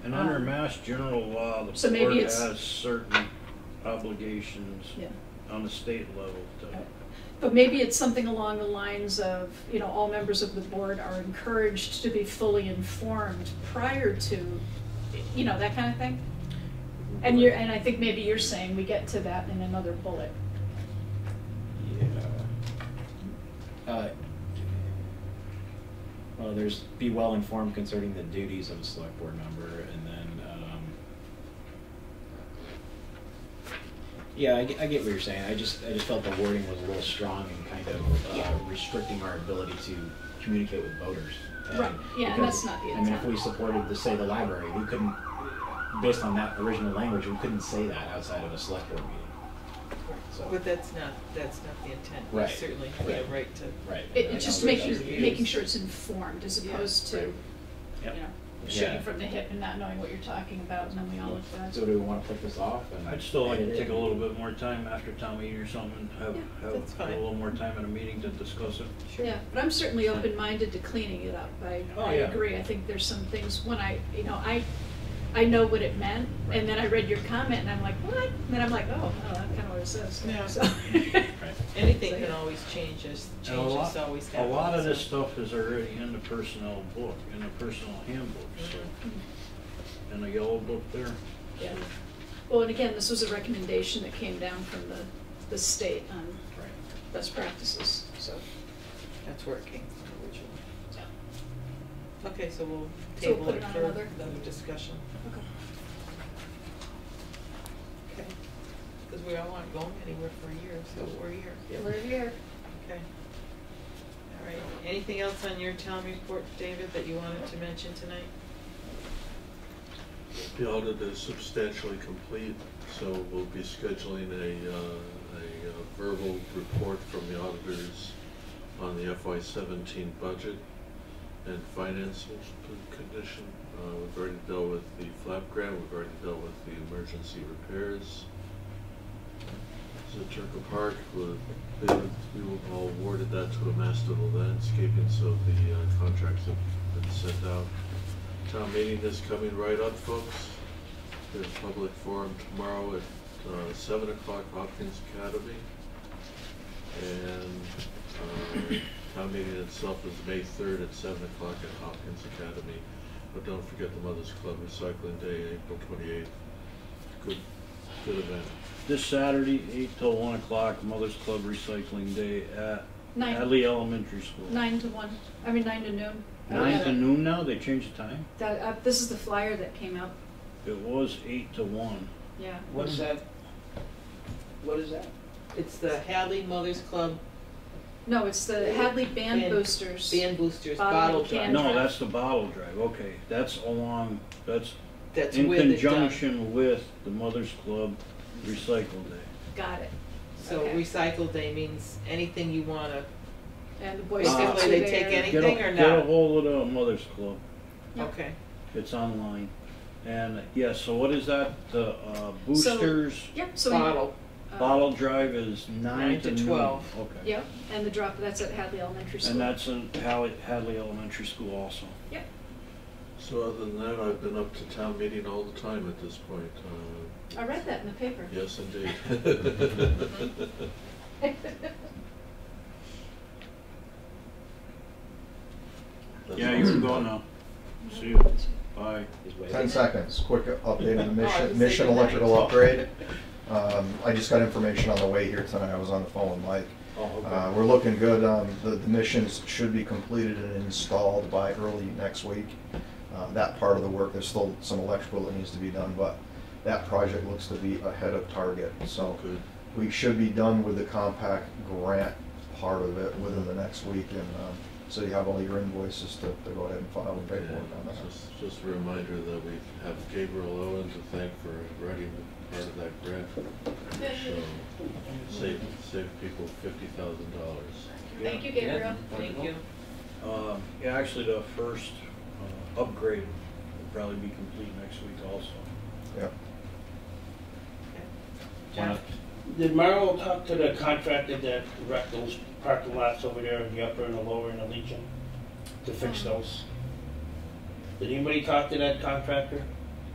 And under Mass General Law, the So maybe board it's- has certain obligations Yeah. on the state level to. But maybe it's something along the lines of, you know, all members of the board are encouraged to be fully informed prior to, you know, that kind of thing. And you're, and I think maybe you're saying we get to that in another bullet. Yeah. Uh, Well, there's be well informed concerning the duties of a select board member and then, um. Yeah, I get, I get what you're saying. I just, I just felt the wording was a little strong and kind of uh, restricting our ability to communicate with voters. And Right, yeah, and because, that's not the I mean, if intent. we supported the, say, the library, we couldn't, based on that original language, we couldn't say that outside of a select board meeting. So. But that's not, that's not the intent. We Right. certainly have the Right. right to. Right. It, it's just making, Yeah. making sure it's informed as opposed to, you Yep. know, Yeah. shooting from the hip and not knowing what you're talking about and then we all look bad. So do we wanna click this off and? I'd still like to edit it? take a little bit more time after town meeting or something, have, Yeah, that's have a fine. little more time at a meeting to discuss it. Yeah, but I'm certainly open-minded to cleaning it up. I, Oh, I yeah. agree. I think there's some things when I, you know, I, I know what it meant, and then I read your comment, and I'm like, what? And then I'm like, oh, oh, that's kind of what it says. Yeah. So- Right. Anything can always change as, And a lot- changes always happen. A lot of so- this stuff is already in the personnel book, in the personnel handbook, Mm-hmm. so, in the yellow book there. Yeah. Well, and again, this was a recommendation that came down from the, the state on Right. best practices, so. That's where it came from originally. yeah. Okay, so we'll So we'll table put it it on for another? another discussion. Okay. Okay. Because we all aren't going anywhere for a year, so we're here. We're here. Okay. All right. Anything else on your town report, David, that you wanted to mention tonight? The audit is substantially complete, so we'll be scheduling a, uh, a uh, verbal report from the auditors on the FY seventeen budget and financial condition. Uh, we've already dealt with the flap grant, we've already dealt with the emergency repairs. Zaturka Park, we, they were- we were all awarded that to a master of landscaping, so the uh, contracts have been sent out. Town meeting is coming right up, folks. There's public forum tomorrow at uh, seven o'clock, Hopkins Academy. And uh, town meeting itself is May third at seven o'clock at Hopkins Academy. But don't forget the Mothers Club Recycling Day, April twenty-eighth. Good, good event. This Saturday, eight till one o'clock, Mother's Club Recycling Day at Nine. Hadley Elementary School. Nine to one, I mean, nine to noon. Nine Yeah. to noon now, they changed the time? That, uh, this is the flyer that came out, It was eight to one. yeah. What's that? What is that? It's the Hadley Mothers Club No, it's the Hadley Band Band- Boosters. Band Boosters Bottle Bottle and can. Drive. No, drive. that's the bottle drive, okay, that's along, that's That's in with it done. conjunction with the Mother's Club Recycle Day. Got it. So Okay. recycle day means anything you wanna, And the Boy Basically, Scouts are they there. take any- Get a- Anything or Get a not? hold of the Mother's Club, Yeah. okay. it's online. And, yeah, so what is that, the uh, boosters, Yep, so we. Bottle. uh, bottle drive is nine Nine to to noon? 12. Okay. Yep, and the drop, that's at Hadley Elementary School. And that's in Hadley, Hadley Elementary School also. Yep, So other than that, I've been up to town meeting all the time at this point. Uh, I read that in the paper. Yes, indeed. That's Yeah, all you can I've go got. now. See you, bye. Is waiting. Ten seconds, quick update on the Oh, I was Mission, Mission thinking electrical that. upgrade. Um, I just got information on the way here tonight, I was on the phone with Mike. Oh, okay. Uh, we're looking good, um, the, the missions should be completed and installed by early next week. Uh, that part of the work, there's still some electrical that needs to be done, but that project looks to be ahead of target, so. Good. We should be done with the compact grant part of it within the next week, and, um, so you have all your invoices to, to go ahead and file and Yeah, paperwork on that. Just, just a reminder that we have Gabriel Owen to thank for writing part of that grant. So, save, save people fifty thousand dollars. thank you, Gabriel. Thank you. Um, yeah, actually, the first uh, upgrade will probably be complete next week also. Yep. Wanna- Jeff? Did Merrill talk to the contractor that wrecked those parking lots over there, the upper and the lower and the Legion, to fix those? Did anybody talk to that contractor?